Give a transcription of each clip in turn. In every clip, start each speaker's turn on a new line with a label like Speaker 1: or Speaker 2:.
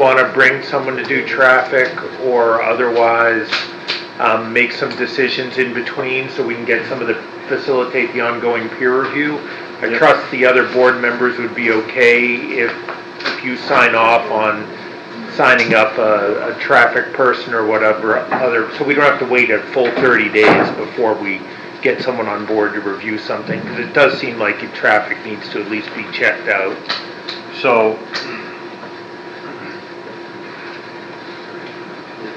Speaker 1: want to bring someone to do traffic or otherwise um, make some decisions in between so we can get some of the, facilitate the ongoing peer review. I
Speaker 2: Yep.
Speaker 1: trust the other board members would be okay if, if you sign off on signing up a, a traffic person or whatever other, so we don't have to wait a full 30 days before we get someone on board to review something, because it does seem like if traffic needs to at least be checked out.
Speaker 2: So,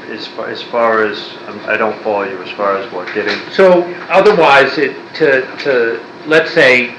Speaker 2: as far, as far as, um, I don't follow you as far as what, getting,
Speaker 1: So otherwise, it, to, to, let's say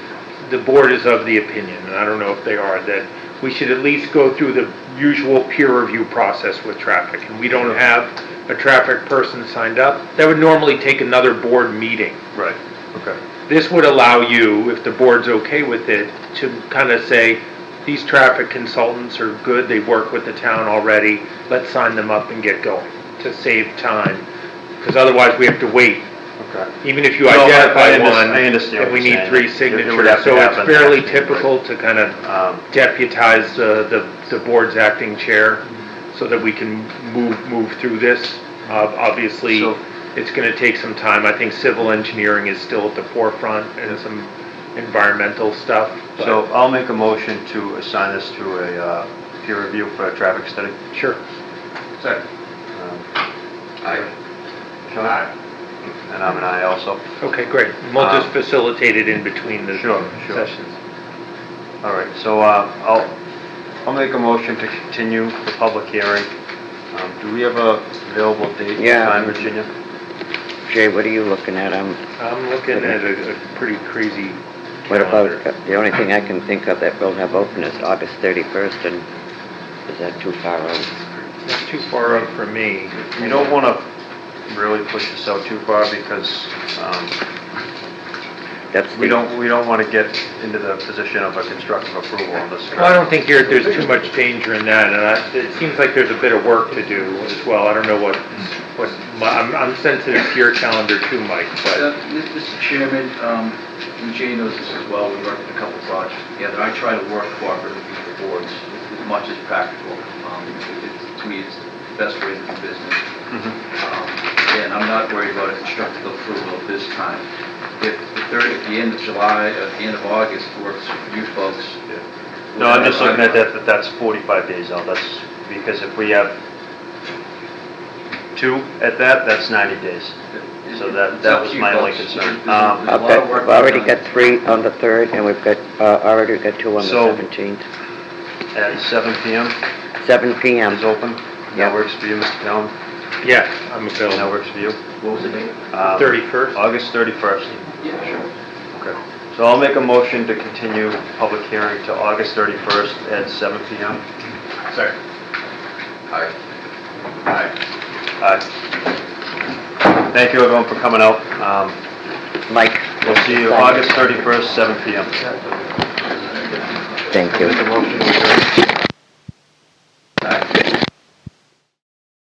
Speaker 1: the board is of the opinion, and I don't know if they are, that we should at least go through the usual peer review process with traffic, and we don't have a traffic person signed up, that would normally take another board meeting.
Speaker 2: right, okay.
Speaker 1: This would allow you, if the board's okay with it, to kind of say, these traffic consultants are good, they work with the town already, let's sign them up and get going, to save time, because otherwise we have to wait
Speaker 2: Okay.
Speaker 1: even if you
Speaker 2: No, I- I
Speaker 1: identify
Speaker 2: under-
Speaker 1: one,
Speaker 2: I understand
Speaker 1: and
Speaker 2: what
Speaker 1: we
Speaker 2: you're
Speaker 1: need
Speaker 2: saying.
Speaker 1: three
Speaker 2: It-
Speaker 1: signatures.
Speaker 2: it would have to
Speaker 1: So
Speaker 2: happen
Speaker 1: it's fairly
Speaker 2: after the meeting.
Speaker 1: typical to kind of
Speaker 2: Um,
Speaker 1: deputize uh, the, the board's acting chair so that we can move, move through this. Uh, Obviously,
Speaker 2: So-
Speaker 1: it's going to take some time. I think civil engineering is still at the forefront and some environmental stuff. but-
Speaker 2: So I'll make a motion to assign this to a uh, peer review for a traffic study.
Speaker 1: Sure.
Speaker 3: Second.
Speaker 2: Um,
Speaker 3: Aye.
Speaker 2: Sean? And I'm an aye also.
Speaker 1: Okay, great. And We'll just
Speaker 2: Um,
Speaker 1: facilitate it in between the
Speaker 2: Sure, sure.
Speaker 1: sessions.
Speaker 2: All right, so uh, I'll, I'll make a motion to continue the public hearing. Um, Do we have a available date and
Speaker 4: Yeah.
Speaker 2: time, Virginia?
Speaker 4: Jay, what are you looking at? I'm,
Speaker 1: I'm looking at a a pretty crazy
Speaker 4: what about,
Speaker 1: calendar.
Speaker 4: the only thing I can think of that will have open is August 31st, and is that too far out?
Speaker 1: Not too far out for me.
Speaker 2: You don't want to really push this out too far because um,
Speaker 4: That's the...
Speaker 2: we don't, we don't want to get into the position of a constructive approval on this.
Speaker 1: Well, I don't think here, there's too much danger in that, and I, it seems like there's a bit of work to do as well. I don't know what, what, my- I'm, I'm sensitive to your calendar too, Mike,
Speaker 3: Uh,
Speaker 1: but,
Speaker 3: Mi- Mr. Chairman, um, and Jay knows this as well, we worked on a couple projects together. I try to work cooperatively with the boards as much as practical. Um, it- it's- To me, it's the best way to do business.
Speaker 2: Mm-hmm.
Speaker 3: Um, And I'm not worried about a constructive approval at this time. If the third, at the end of July, uh, at the end of August works for you folks.
Speaker 2: No, I'm just looking at that, that that's 45 days out, that's, because if we have two at that, that's 90 days.
Speaker 3: It-
Speaker 2: So that-
Speaker 3: it's
Speaker 2: that
Speaker 3: up
Speaker 2: was
Speaker 3: to you
Speaker 2: my only
Speaker 3: folks.
Speaker 2: concern.
Speaker 3: There's a-
Speaker 2: Um,
Speaker 3: there's a
Speaker 4: I've
Speaker 3: lot of
Speaker 4: got,
Speaker 3: work
Speaker 4: I've already
Speaker 3: to be done.
Speaker 4: got three on the 3rd, and we've got, uh, already got two on the
Speaker 2: So-
Speaker 4: 17th.
Speaker 2: At 7 PM
Speaker 4: 7
Speaker 2: is
Speaker 4: PM,
Speaker 2: open,
Speaker 4: Yeah.
Speaker 2: that works for you, Mr. Callen,
Speaker 1: yeah, I'm
Speaker 2: that
Speaker 1: available.
Speaker 2: works for you.
Speaker 3: What was the date?
Speaker 2: Um,
Speaker 1: Thirty-first?
Speaker 2: August 31st.
Speaker 3: Yeah, sure.
Speaker 2: Okay. So I'll make a motion to continue public hearing to August 31st at 7 PM.
Speaker 3: Sorry. Aye. Aye.
Speaker 2: Aye. Thank you everyone for coming out. Um,
Speaker 4: Mike.
Speaker 2: We'll see you August 31st, 7 PM.
Speaker 4: Thank you.